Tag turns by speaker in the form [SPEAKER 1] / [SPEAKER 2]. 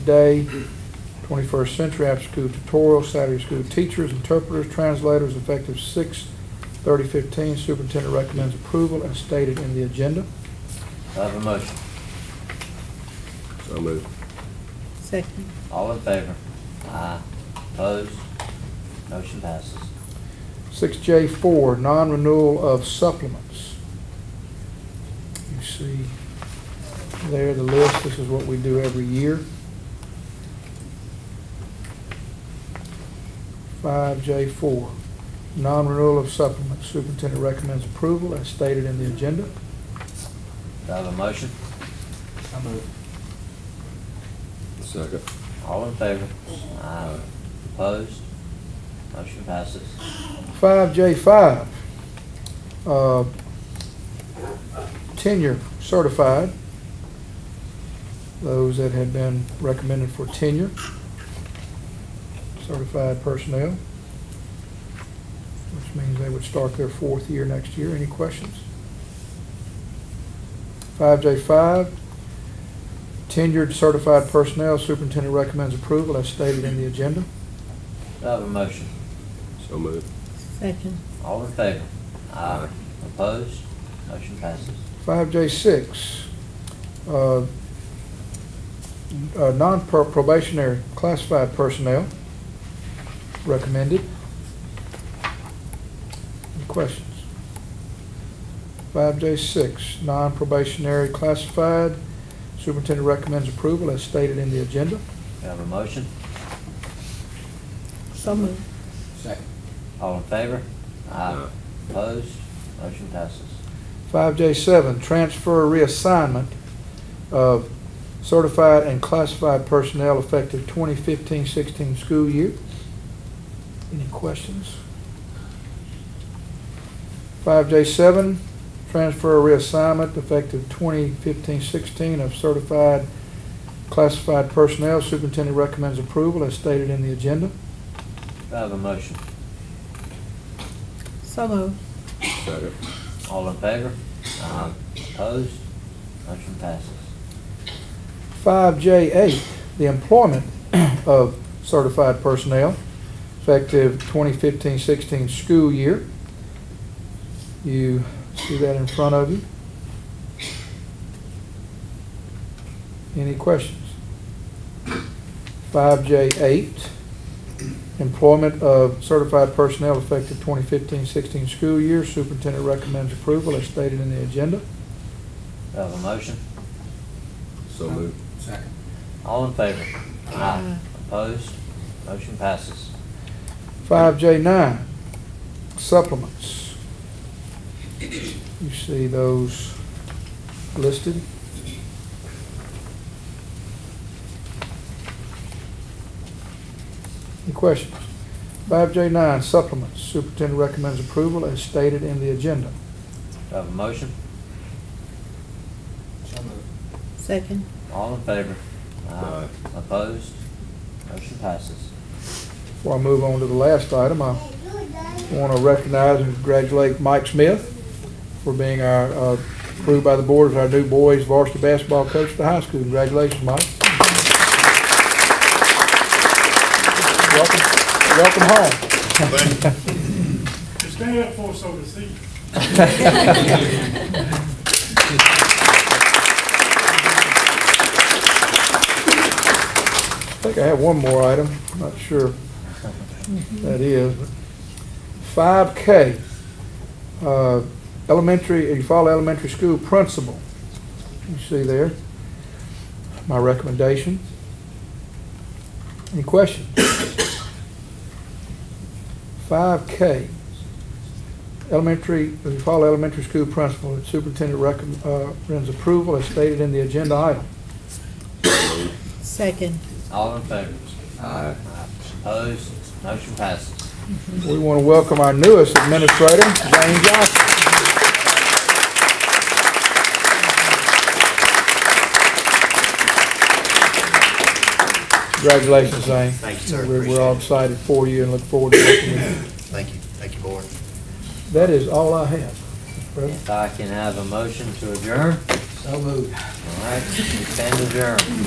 [SPEAKER 1] Today, 21st Century After School Tutorial, Saturday School Teachers, Interpreters, Translators, effective 6/30/15. Superintendent recommends approval as stated in the agenda.
[SPEAKER 2] Do I have a motion?
[SPEAKER 3] So moved.
[SPEAKER 4] Second.
[SPEAKER 2] All in favor? Aye. Opposed? Motion passes.
[SPEAKER 1] 6J4, non-renewal of supplements. You see there the list, this is what we do every year. 5J4, non-renewal of supplements. Superintendent recommends approval as stated in the agenda.
[SPEAKER 2] Do I have a motion?
[SPEAKER 3] Second.
[SPEAKER 2] All in favor? Aye. Opposed? Motion passes.
[SPEAKER 1] Five J five, uh, tenure certified, those that had been recommended for tenure, certified personnel, which means they would start their fourth year next year. Any questions? Five J five, tenured certified personnel, superintendent recommends approval as stated in the agenda.
[SPEAKER 2] Do I have a motion?
[SPEAKER 3] So moved.
[SPEAKER 4] Second.
[SPEAKER 2] All in favor? Aye. Opposed? Motion passes.
[SPEAKER 1] Five J six, uh, uh, non-probationary classified personnel recommended. Any questions? Five J six, non-probationary classified, superintendent recommends approval as stated in the agenda.
[SPEAKER 2] Do I have a motion?
[SPEAKER 4] So moved.
[SPEAKER 2] All in favor? Aye.
[SPEAKER 3] Aye.
[SPEAKER 2] Opposed? Motion passes.
[SPEAKER 1] Five J seven, transfer reassignment of certified and classified personnel effective 2015-16 school year. Any questions? Five J seven, transfer reassignment effective 2015-16 of certified classified personnel. Superintendent recommends approval as stated in the agenda.
[SPEAKER 2] Do I have a motion?
[SPEAKER 4] So moved.
[SPEAKER 3] Second.
[SPEAKER 2] All in favor? Aye. Opposed? Motion passes.
[SPEAKER 1] 5J8, the employment of certified personnel, effective 2015-16 school year. You see that in front of you? Any questions? 5J8, employment of certified personnel effective 2015-16 school year. Superintendent recommends approval as stated in the agenda.
[SPEAKER 2] Do I have a motion?
[SPEAKER 3] So moved.
[SPEAKER 2] All in favor? Aye.
[SPEAKER 4] Aye.
[SPEAKER 2] Opposed? Motion passes.
[SPEAKER 1] Five J nine, supplements. You see those listed? Any questions? Five J nine, supplements. Superintendent recommends approval as stated in the agenda.
[SPEAKER 2] Do I have a motion?
[SPEAKER 4] Second.
[SPEAKER 2] All in favor?
[SPEAKER 3] Aye.
[SPEAKER 2] Opposed? Motion passes.
[SPEAKER 1] Before I move on to the last item, I want to recognize and congratulate Mike Smith for being our, uh, approved by the board as our new boys varsity basketball coach at the high school. Congratulations, Mike. Welcome, welcome home.
[SPEAKER 5] Stand up for us so to see.
[SPEAKER 1] I think I have one more item, I'm not sure that is. Five K, uh, elementary, you follow elementary school principal. You see there, my recommendation. Any questions? Five K, elementary, you follow elementary school principal, superintendent recommend, uh, recommends approval as stated in the agenda item.
[SPEAKER 4] Second.
[SPEAKER 2] All in favor?
[SPEAKER 3] Aye.
[SPEAKER 2] Opposed? Motion passes.
[SPEAKER 1] We want to welcome our newest administrator, Jane Johnson. Congratulations, Jane.
[SPEAKER 6] Thank you, sir.
[SPEAKER 1] We're-
[SPEAKER 6] Appreciate
[SPEAKER 1] We're all
[SPEAKER 6] it.
[SPEAKER 1] excited for you and look forward to working with
[SPEAKER 6] Thank you, thank you, board.
[SPEAKER 1] you. That is all I have, Brother,
[SPEAKER 2] If I can have a motion to adjourn?
[SPEAKER 6] So moved.
[SPEAKER 2] All right, we stand adjourned.